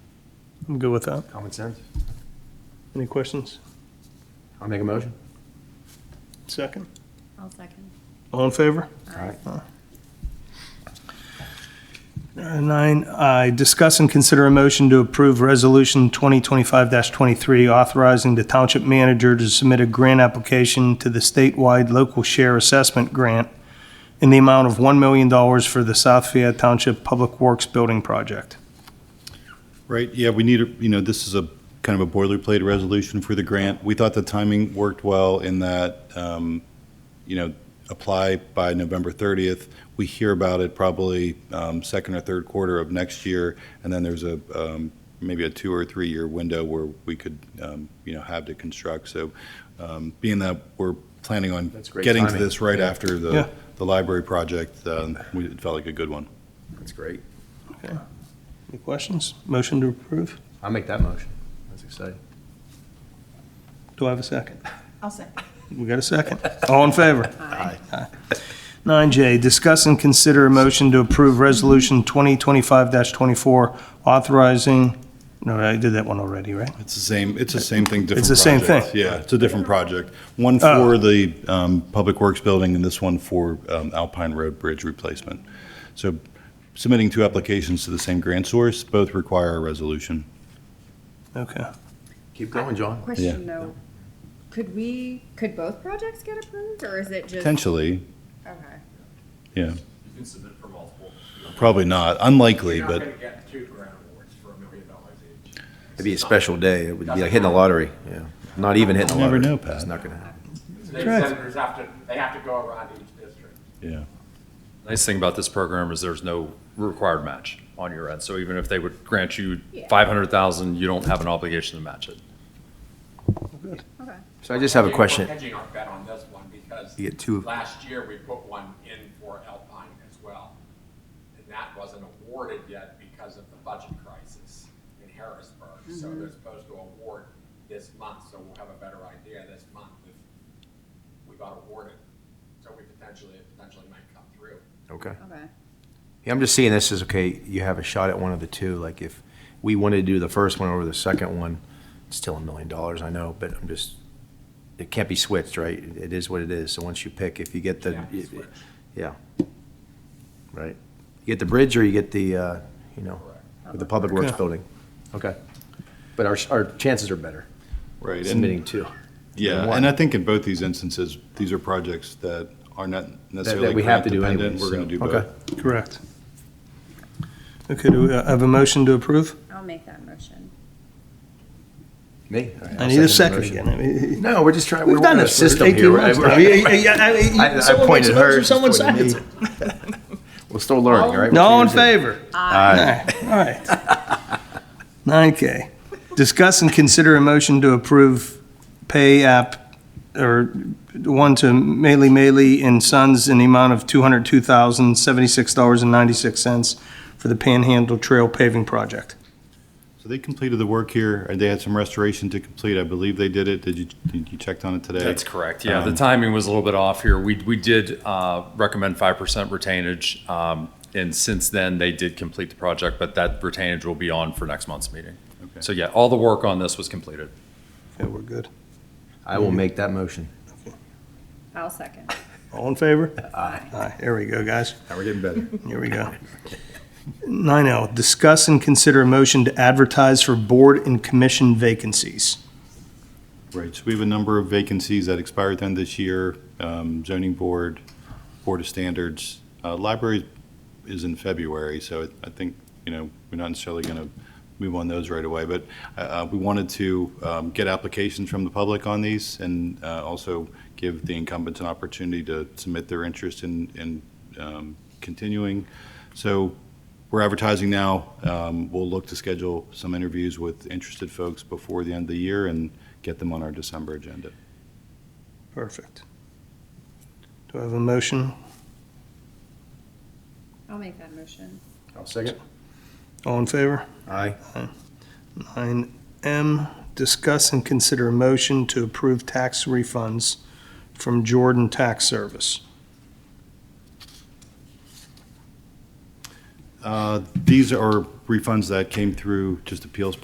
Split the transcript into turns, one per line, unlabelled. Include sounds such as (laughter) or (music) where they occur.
I'm good with that.
Common sense.
Any questions?
I'll make a motion.
Second.
I'll second.
All in favor?
All right.
Uh, Nine I, discuss and consider a motion to approve Resolution 2025-23, authorizing the township manager to submit a grant application to the statewide local share assessment grant in the amount of $1 million for the South Fayette Township Public Works Building Project.
Right, yeah, we need, a- you know, this is a kind of a boilerplate resolution for the grant. We thought the timing worked well in that, um, you know, apply by November 30th. We hear about it probably um, second or third quarter of next year, and then there's a, um, maybe a two or three-year window where we could, um, you know, have to construct. So um, being that we're planning on
That's great
getting to
timing.
this right after
Yeah.
the, the library project, um, we- it felt like a good one.
That's great.
Any questions? Motion to approve?
I'll make that motion. That's exciting.
Do I have a second?
I'll second.
We got a second. All in favor?
Aye.
9J, discuss and consider a motion to approve Resolution 2025-24, authorizing, no, I did that one already, right?
It's the same, it's the same thing, different project.
It's the same thing. Oh.
Yeah, it's a different project. One for the um, Public Works Building and this one for um, Alpine Road Bridge replacement. So submitting two applications to the same grant source, both require a resolution.
Okay.
Keep going, John.
Question though, could we, could both projects get approved or is it just?
Potentially,
Okay.
yeah,
You can submit for multiple.
probably not, unlikely,
You're
but
not gonna get two grant awards for a million dollars each.
It'd be a special day. It would be like hitting the lottery. Yeah. Not even hitting the
You never
lottery.
know, Pat.
It's not gonna happen.
State
Correct.
senators have to, they have to go around each district.
yeah.
Nice thing about this program is there's no required match on your end. So even if they would grant you
Yeah.
500,000, you don't have an obligation to match it.
Okay.
So I just have a
We're
question.
hedging our bet on this one because
You get two.
last year we put one in for Alpine as well. And that wasn't awarded yet because of the budget crisis in Harrisburg. So
Mm-hmm.
they're supposed to award this month, so we'll have a better idea this month if we got awarded. So we potentially, it potentially might come through.
Okay.
Okay.
Yeah, I'm just seeing this as, okay, you have a shot at one of the two. Like if we wanted to do the first one over the second one, it's still a million dollars, I know, but I'm just, it can't be switched, right? It is what it is. So once you pick, if you get the,
Yeah, it's switched.
yeah. Right. You get the bridge or you get the, uh, you know, with the Public Works
Yeah.
Building. Okay. But our, our chances are better
Right.
submitting two.
Yeah,
one.
and I think in both these instances, these are projects that are not necessarily
we have
grant
to do
dependent.
anyways,
We're going to do
so-
both.
okay.
Correct. Okay, do we uh, have a motion to approve?
I'll make that motion.
Me?
I need a second again. I mean,
No, we're just trying, we're
We've done
working a
this for
system here,
18
right?
months. now.
We're- I- (laughs) I
Yeah, Someone makes a
pointed hers,
motion, someone
she's pointing
seconds
at me. We're still learning, all right?
it. All in
We're two years
favor?
Aye.
All right. (laughs) 9K, discuss and consider a motion to approve pay app, or one to Mealy Mealy and Sons in the amount of $202,076.96 for the Panhandle Trail paving project.
So they completed the work here, and they had some restoration to complete. I believe they did it. Did you, did you checked on it today?
That's correct. Yeah, the
Um,
timing was a little bit off here. We, we did uh, recommend 5% retainage. um, And since then, they did complete the project, but that retainage will be on for next month's meeting.
Okay.
So yeah, all the work on this was completed.
Yeah, we're good.
I will make that motion.
I'll second.
All in favor? Aye. Aye, there we go, guys.
Now we're getting better.
Here we go. Nine L, discuss and consider a motion to advertise for board and commission vacancies.
Right, so we have a number of vacancies that expire then this year, um, zoning board, board of standards. Uh, Library is in February, so I think, you know, we're not necessarily going to move on those right away, but uh, uh, we wanted to um, get applications from the public on these and uh, also give the incumbents an opportunity to submit their interest in, in um, continuing. So we're advertising now. Um, We'll look to schedule some interviews with interested folks before the end of the year and get them on our December agenda.
Perfect. Do I have a motion?
I'll make that motion.
I'll second.
All in favor?
Aye.
Nine M, discuss and consider a motion to approve tax refunds from Jordan Tax Service.
Uh, These are refunds that came through just appeals